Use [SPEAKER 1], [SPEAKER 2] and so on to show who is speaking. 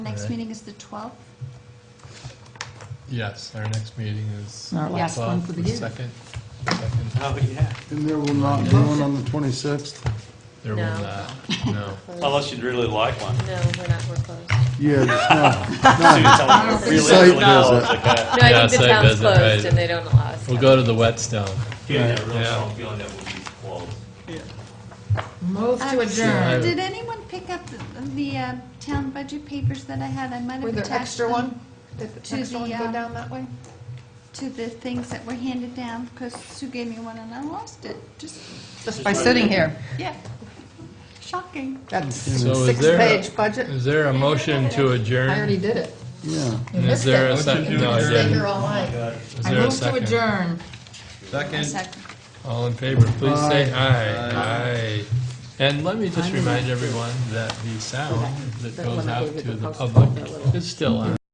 [SPEAKER 1] next
[SPEAKER 2] Alright.
[SPEAKER 1] meeting is the 12th?
[SPEAKER 2] Yes, our next meeting is.
[SPEAKER 3] Our last one
[SPEAKER 2] twelve,
[SPEAKER 3] for the year.
[SPEAKER 2] Second, second,
[SPEAKER 4] Oh, yeah.
[SPEAKER 5] And there will not be one on the 26th?
[SPEAKER 2] there will
[SPEAKER 6] No.
[SPEAKER 2] not, no.
[SPEAKER 4] Unless you'd really like one.
[SPEAKER 6] No, we're not, we're closed.
[SPEAKER 5] Yeah, there's no,
[SPEAKER 4] Soon as I
[SPEAKER 6] Site
[SPEAKER 4] really, really know,
[SPEAKER 5] visit.
[SPEAKER 4] it's like a-
[SPEAKER 6] No,
[SPEAKER 2] Yeah,
[SPEAKER 6] I think the
[SPEAKER 2] site
[SPEAKER 6] town's
[SPEAKER 2] visit, right.
[SPEAKER 6] closed and they don't allow us.
[SPEAKER 2] We'll go to the whetstone.
[SPEAKER 4] Yeah, yeah, really
[SPEAKER 2] Yeah.
[SPEAKER 4] strong feeling that we'll be closed.
[SPEAKER 3] Move to
[SPEAKER 1] Uh,
[SPEAKER 3] adjourn.
[SPEAKER 1] Did anyone pick up the- the uh, town budget papers that I had? I might have
[SPEAKER 3] Were there
[SPEAKER 1] attached
[SPEAKER 3] extra
[SPEAKER 1] them
[SPEAKER 3] one? Did
[SPEAKER 1] to
[SPEAKER 3] the uh, extra one
[SPEAKER 1] the,
[SPEAKER 3] go
[SPEAKER 1] um,
[SPEAKER 3] down that way?
[SPEAKER 1] To the things that were handed down, because Sue gave me one and I lost it. Just,
[SPEAKER 3] Just by sitting here.
[SPEAKER 1] yeah, shocking.
[SPEAKER 3] That's
[SPEAKER 2] So is there-
[SPEAKER 3] six-page budget.
[SPEAKER 2] Is there a motion to
[SPEAKER 3] I already
[SPEAKER 2] adjourn?
[SPEAKER 3] did it.
[SPEAKER 5] yeah.
[SPEAKER 3] You
[SPEAKER 2] And Is
[SPEAKER 3] missed
[SPEAKER 2] there a
[SPEAKER 3] it.
[SPEAKER 2] second? No, I
[SPEAKER 3] You stayed
[SPEAKER 2] didn't.
[SPEAKER 3] here all night.
[SPEAKER 2] Is
[SPEAKER 3] I
[SPEAKER 2] there a
[SPEAKER 3] move to
[SPEAKER 2] second?
[SPEAKER 3] adjourn.
[SPEAKER 2] Second,
[SPEAKER 1] Second.
[SPEAKER 2] all in favor, please say aye.
[SPEAKER 5] Aye.
[SPEAKER 2] Aye. And let me just
[SPEAKER 3] I'm
[SPEAKER 2] remind everyone that the sound that
[SPEAKER 3] that
[SPEAKER 2] goes
[SPEAKER 3] one I
[SPEAKER 2] out
[SPEAKER 3] gave you
[SPEAKER 2] to
[SPEAKER 3] the
[SPEAKER 2] the
[SPEAKER 3] postcard,
[SPEAKER 2] public
[SPEAKER 3] that little-
[SPEAKER 2] is still on.